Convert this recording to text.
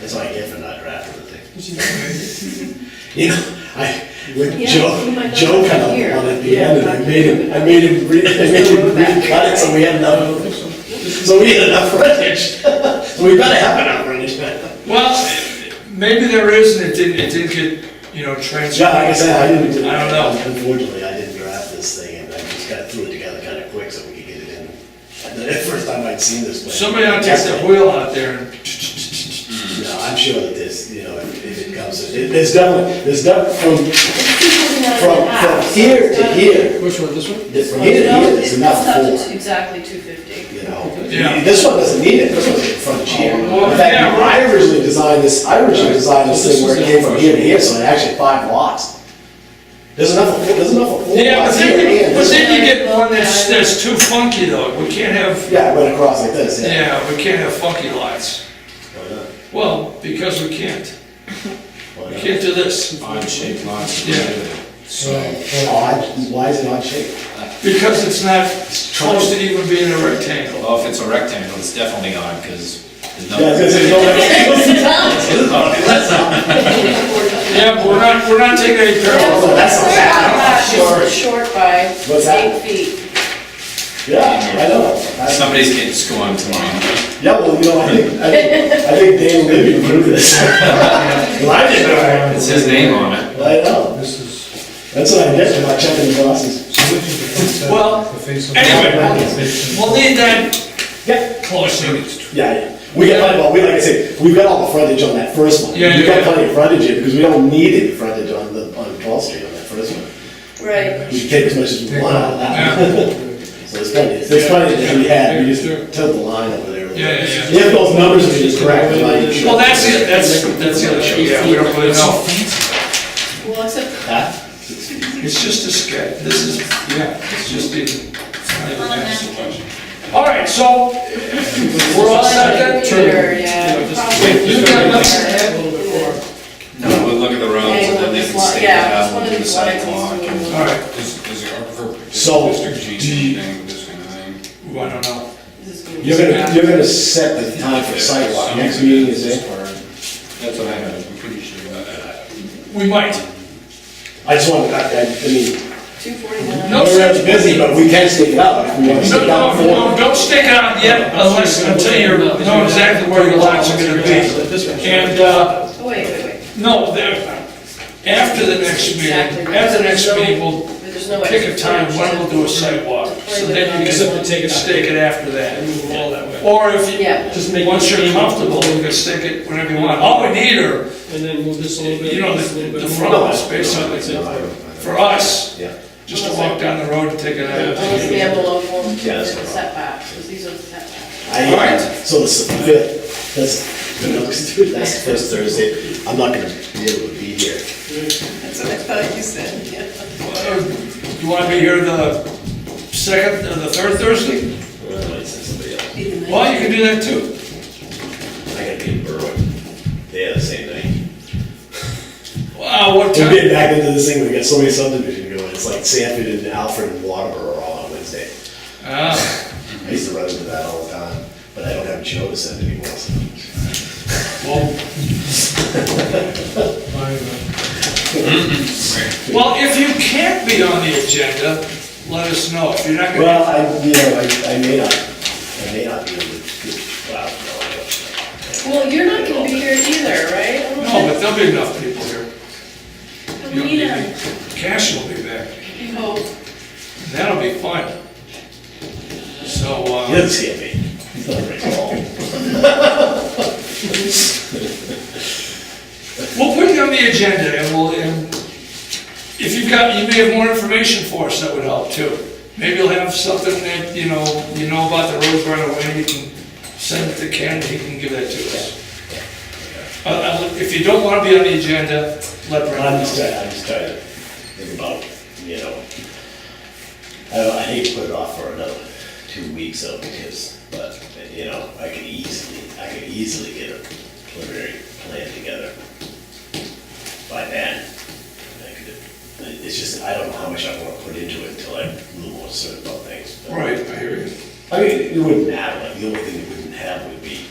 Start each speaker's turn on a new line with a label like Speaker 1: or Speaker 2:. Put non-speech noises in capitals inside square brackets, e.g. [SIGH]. Speaker 1: It's like if and not after the thing.
Speaker 2: Did you remember?
Speaker 1: [LAUGHS] You know, I, with
Speaker 3: Yeah, you might
Speaker 1: Joe,
Speaker 3: not
Speaker 1: Joe
Speaker 3: be
Speaker 1: kind of
Speaker 3: here.
Speaker 1: won at the end, and I made him, I made him re, I made him recut it, so we had enough. So we had enough frontage, [LAUGHS] so we better have enough frontage.
Speaker 2: Well, maybe there is, and it didn't, it didn't get, you know, transcribed.
Speaker 1: Yeah, like I said, I didn't.
Speaker 2: I don't know.
Speaker 1: Unfortunately, I didn't draft this thing, and I just kind of threw it together kind of quick so we could get it in. The first time I'd seen this. plan.
Speaker 2: Somebody ought to take that wheel out there and,
Speaker 1: No, I'm sure that this, you know, if if it comes, it- there's definitely, there's definitely, from, from, from here to here,
Speaker 4: Which one, this one?
Speaker 1: this- from here to here, there's enough
Speaker 3: It's
Speaker 1: for,
Speaker 3: exactly two fifty.
Speaker 1: you know?
Speaker 2: Yeah.
Speaker 1: This one doesn't need it, this one's in front of here.
Speaker 2: Well,
Speaker 1: In fact, I
Speaker 2: yeah, right.
Speaker 1: originally designed this, I originally designed this thing where it came from here to here, so it actually had five lots. There's enough, for- there's enough for four
Speaker 2: yeah, but
Speaker 1: lots here
Speaker 2: then, you-
Speaker 1: and
Speaker 2: but
Speaker 1: this one.
Speaker 2: then you get one that's, that's too funky though, we can't have,
Speaker 1: Yeah, it went across like this, yeah.
Speaker 2: yeah, we can't have funky lots.
Speaker 1: Why not?
Speaker 2: Well, because we can't,
Speaker 1: Why
Speaker 2: we
Speaker 1: not?
Speaker 2: can't do this,
Speaker 4: Odd shaped lots.
Speaker 2: Yeah.
Speaker 1: Odd, why is it odd shape?
Speaker 2: because it's not close to even being a rectangle.
Speaker 4: Well, if it's a rectangle, it's definitely odd, because there's
Speaker 1: Yeah, I was
Speaker 4: no.
Speaker 1: gonna say, no, that's-
Speaker 2: Yeah, but we're not, we're not taking any parallels.
Speaker 1: Oh, that's not bad.
Speaker 3: It's short by
Speaker 1: What's that?
Speaker 3: eight feet.
Speaker 1: yeah, I know. I-
Speaker 4: [LAUGHS] Somebody's getting scorned tomorrow.
Speaker 1: Yeah, well, you know, I think, I think, I think Dan Libby approved this. Well, I didn't know.
Speaker 4: It's his name on it.
Speaker 1: I know.
Speaker 5: This is,
Speaker 1: That's what I get for not checking the boxes.
Speaker 5: so what is the concept?
Speaker 2: Well,
Speaker 5: The face of-
Speaker 2: anyway. We'll need that
Speaker 1: Yeah,
Speaker 2: closer.
Speaker 1: yeah, yeah. We got, plenty- well, we, like I say, we've got all the frontage on that first one.
Speaker 2: Yeah,
Speaker 1: We've got
Speaker 2: yeah, yeah.
Speaker 1: plenty of frontage here because we don't need any frontage on the, on 12th Street on that first one.
Speaker 3: Right.
Speaker 1: We can take as much as we
Speaker 5: Take
Speaker 1: want out of that. one. [LAUGHS] So there's plenty, there's
Speaker 2: Yeah.
Speaker 1: plenty that we had, we
Speaker 2: Yeah,
Speaker 1: just
Speaker 2: sure.
Speaker 1: tilt the line over there.
Speaker 2: Yeah, yeah, yeah.
Speaker 1: If those numbers are just correct, then I.
Speaker 2: Well, that's it, that's, that's the other show, yeah, we don't really know.
Speaker 3: Well, except
Speaker 1: Huh?
Speaker 2: It's just a sketch, this is, yeah, it's just a. I don't have so much. All right, so, we're all set then?
Speaker 3: Computer, yeah.
Speaker 2: Wait, you got enough to
Speaker 4: No, we'll look at the roads, and then they can stake it
Speaker 3: Yeah, it's
Speaker 4: out,
Speaker 3: one
Speaker 4: we'll
Speaker 3: of
Speaker 4: do the
Speaker 3: these lines
Speaker 4: sidewalk.
Speaker 3: he's doing.
Speaker 2: All right,
Speaker 6: Does, does the Aquifer
Speaker 1: So,
Speaker 6: District
Speaker 1: do
Speaker 6: GC
Speaker 1: you-
Speaker 6: thing, this kind of thing?
Speaker 2: Ooh, I don't know.
Speaker 3: This is gonna be
Speaker 1: You're gonna,
Speaker 3: bad.
Speaker 1: you're gonna set the time for sidewalk, next meeting is it?
Speaker 6: That's what I had, I'm pretty sure. that-
Speaker 2: We might.
Speaker 1: I just want, I, I I mean,
Speaker 3: Two forty-nine.
Speaker 2: No,
Speaker 1: we're
Speaker 2: sir.
Speaker 1: really busy, but we can stick it out if we wanna
Speaker 2: No,
Speaker 1: stick it out
Speaker 2: no, no,
Speaker 1: for.
Speaker 2: don't stick out yet unless, until you know exactly where your lots are gonna be. And, uh,
Speaker 3: Oh, wait, wait, wait.
Speaker 2: No, there, after the next meeting, after the next meeting, we'll
Speaker 3: But There's no.
Speaker 2: pick a time when we'll do a sidewalk. So then you can take it, stake it after that. Or if
Speaker 3: Yeah.
Speaker 2: you, once you're comfortable, you can stick it whenever you want. All we need are,
Speaker 7: And then move this a little bit.
Speaker 2: you know,
Speaker 7: this a
Speaker 2: the
Speaker 7: little
Speaker 2: the
Speaker 7: bit.
Speaker 2: front of us, basically. For us,
Speaker 1: Yeah,
Speaker 2: just to walk down the road and take it
Speaker 3: Unless the
Speaker 2: out.
Speaker 3: envelope won't
Speaker 1: Yeah, that's
Speaker 3: fit the setbacks, 'cause these are the setbacks.
Speaker 1: I,
Speaker 2: All right.
Speaker 1: so the s- fifth, that's, the next- [LAUGHS] that's the first Thursday, I'm not gonna be able to be here.
Speaker 3: That's what I thought you said, yeah.
Speaker 2: You wanna be here the second, or the third Thursday?
Speaker 1: Well, I might send somebody else.
Speaker 2: Well, you can do that too.
Speaker 1: I gotta be in Berwick, they had the same thing.
Speaker 2: Wow, what
Speaker 1: We're
Speaker 2: time?
Speaker 1: getting back into this thing, we got so many subdivisions going, it's like Sanford and Alfred and Waterboro are all on Wednesday.
Speaker 2: Ah,
Speaker 1: I used to run into that all the time, but I don't have Joe to send anymore, so.
Speaker 2: well,
Speaker 5: Fine, uh,
Speaker 2: Well, if you can't be on the agenda, let us know. If you're not
Speaker 1: Well,
Speaker 2: gonna,
Speaker 1: I, you know, I, I may not, I may not be able to, wow, no, I don't.
Speaker 3: Well, you're not gonna be here either, right? I don't
Speaker 2: no,
Speaker 3: think-
Speaker 2: but there'll be enough people here. You'll be-
Speaker 3: Alina, Oh.
Speaker 2: Cash will be back.
Speaker 3: you hope.
Speaker 2: That'll be fun. So,
Speaker 1: He
Speaker 2: uh,
Speaker 1: doesn't see me. He's not very tall.
Speaker 2: we'll put you on the agenda and we'll, and if you've got, you may have more information for us, that would help too. Maybe you'll have something that, you know, you know about the roads right away, you can send it to Ken, he can give that to us. Uh, Uh, if you don't wanna be on the agenda, let Brenda know.
Speaker 1: I'm just trying, I'm just trying to think about, you know, I don't, I hate to put it off for another two weeks though, because, but, you know, I could easily, I could easily get a preliminary plan together by then. I could- It's just, I don't know how much I wanna put into it until I'm a little more certain about things. but-
Speaker 2: Right, I hear you.
Speaker 1: I mean, it wouldn't matter, like, the only thing it wouldn't have would be